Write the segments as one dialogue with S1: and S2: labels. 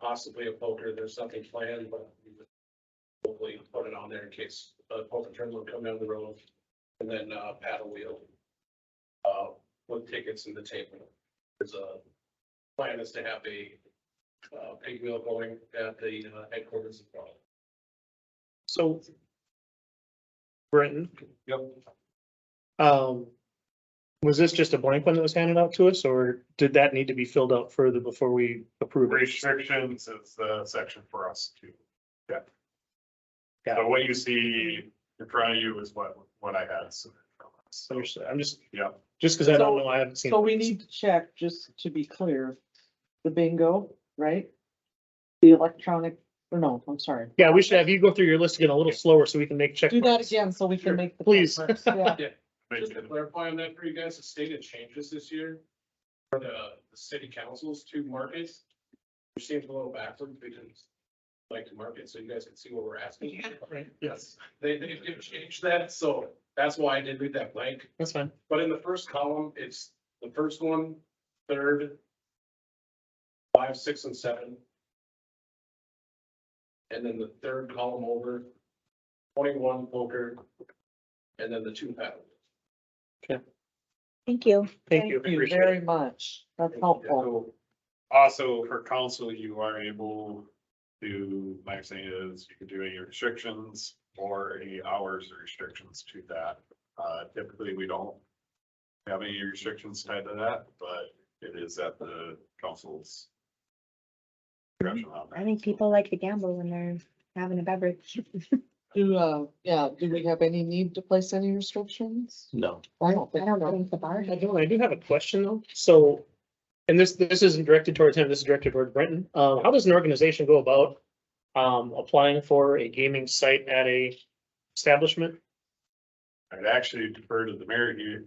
S1: possibly a poker, there's something planned, but we would hopefully put it on there in case a poker tournament come down the road. And then uh, paddle wheel. Uh, with tickets in the table. There's a plan is to have a uh, pig wheel going at the uh, headquarters as well.
S2: So. Brenton,
S1: Yep.
S2: um, was this just a blank one that was handed out to us or did that need to be filled out further before we approve it?
S3: Restrictions is the section for us to, yeah.
S2: Got
S3: So what you see in front of you is what, what I had. submitted from us. So,
S2: Understood. I'm just,
S3: yeah,
S2: just because I don't
S4: So-
S2: know, I haven't seen.
S4: So we need to check, just to be clear, the bingo, right? The electronic, or no, I'm sorry.
S2: Yeah, we should have you go through your list again a little slower so we can make check.
S4: Do that
S2: marks.
S4: again so we
S1: Sure,
S4: can make the.
S2: please.
S4: check marks, Yeah,
S1: Just to
S3: Maybe-
S1: clarify on that for you guys, the state had changes this year for the, the city councils to markets. Which seems a little backwards because like to market, so you guys can see what we're asking.
S2: Right,
S1: Yes, they, they did change that, so that's why I did leave that blank.
S2: that's fine.
S1: But in the first column, it's the first one, third, five, six, and seven. And then the third column over, twenty-one poker, and then the two paddle.
S5: Thank you.
S2: Thank you. I appreciate it.
S4: Very much. That's helpful.
S3: So, Also, for council, you are able to, my understanding is you can do any restrictions or any hours or restrictions to that. Uh, typically, we don't have any restrictions tied to that, but it is at the council's discretion on that.
S5: I think people like to gamble when they're having a beverage.
S4: Do, uh, yeah, do we have any need to place any restrictions?
S2: No.
S4: I don't
S5: I
S4: think
S5: don't
S4: so.
S5: think the bar.
S2: I don't, I do have a question though. So, and this, this isn't directed towards him, this is directed towards Brenton. Um, how does an organization go about um, applying for a gaming site at a establishment?
S3: I'd actually defer to the mayor here.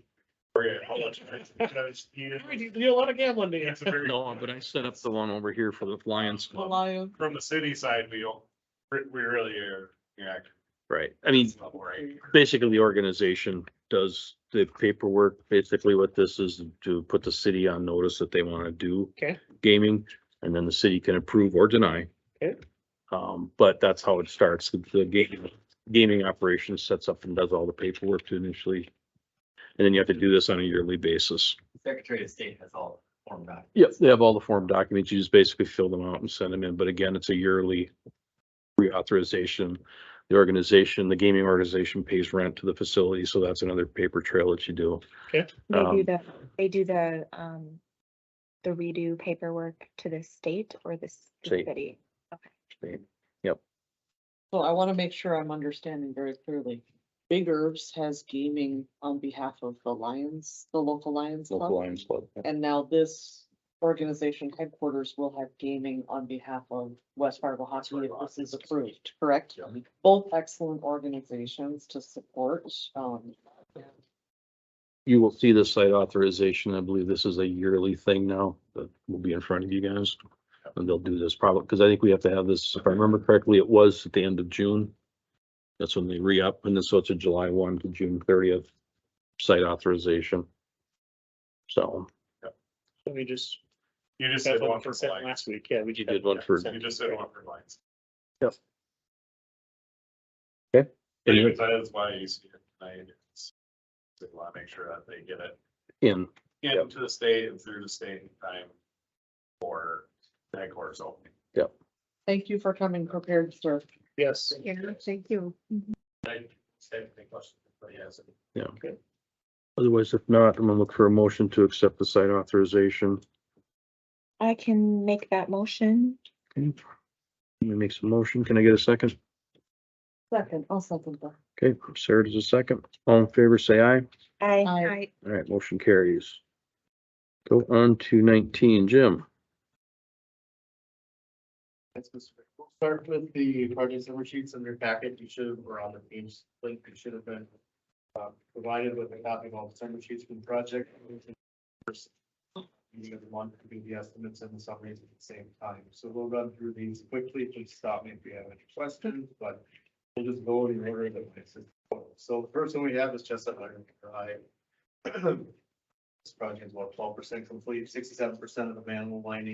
S3: Forget how much. because he is-
S2: We do- do a lot of gambling, do you?
S3: it's a very-
S6: No, but I set up the one over here for the Lions
S4: The
S6: Club.
S4: lion,
S3: From the city side, we don't, we really are, yeah.
S6: Right. I mean,
S3: it's not right.
S6: basically the organization does the paperwork. Basically what this is to put the city on notice that they want to do.
S2: Okay.
S6: Gaming and then the city can approve or deny.
S2: Okay.
S6: Um, but that's how it starts. The- The gaming, gaming operation sets up and does all the paperwork to initially. And then you have to do this on a yearly basis.
S7: Secretary of State has all formed out.
S6: Yep, they have all the form documents. You just basically fill them out and send them in. But again, it's a yearly reauthorization. The organization, the gaming organization pays rent to the facility, so that's another paper trail that you do.
S5: They
S6: Um,
S5: do the, they do the, um, the redo paperwork to the state or the s- the
S6: State.
S5: city.
S4: so I want to make sure I'm understanding very clearly. Big Herbs has gaming on behalf of the Lions, the local Lions Club.
S6: Local Lions Club.
S4: And now this organization headquarters will have gaming on behalf of West Fargo Hockey if this is approved, correct?
S3: Yeah.
S4: Both excellent organizations to support, um,
S6: You will see the site authorization. I believe this is a yearly thing now that will be in front of you guys. And they'll do this probably, because I think we have to have this, if I remember correctly, it was at the end of June. That's when they re-up, and then so it's a July one to June thirtieth site authorization. So.
S2: We just,
S3: You just
S2: that's
S3: said
S2: what
S3: one
S2: we
S3: for
S2: consent
S3: lights.
S2: last week, yeah. we
S6: You
S2: just-
S6: did one for-
S3: You just said one for lights.
S6: Anyway,
S3: Anyways, that is why you see it tonight. is They want to make sure that they get it
S6: in, Yep.
S3: into the state and through the state in time for that course opening.
S4: thank you for coming prepared, sir.
S2: Yes.
S5: Yeah, thank you.
S1: I said, any questions, but yes.
S6: otherwise if not, I'm gonna look for a motion to accept the site authorization.
S5: I can make that motion.
S6: Let me make some motion. Can I get a second?
S4: Second, I'll second that.
S6: Okay, Sarah does a second. All in favor, say aye.
S5: I.
S4: Aye.
S6: All right, motion carries. Go on to nineteen, Jim.
S8: That's Mr. Rick. We'll start with the project summary sheets in your packet. You should, or on the Teams link, you should have been uh, provided with a copy of all the summary sheets from the project. First, You should want to do the estimates and the summaries at the same time. So we'll run through these quickly. Please stop me if you have any questions, but we'll just go in order that I said. So the first one we have is Chestnut Iron Drive. This project is about twelve percent complete, sixty-seven percent of the manhole lining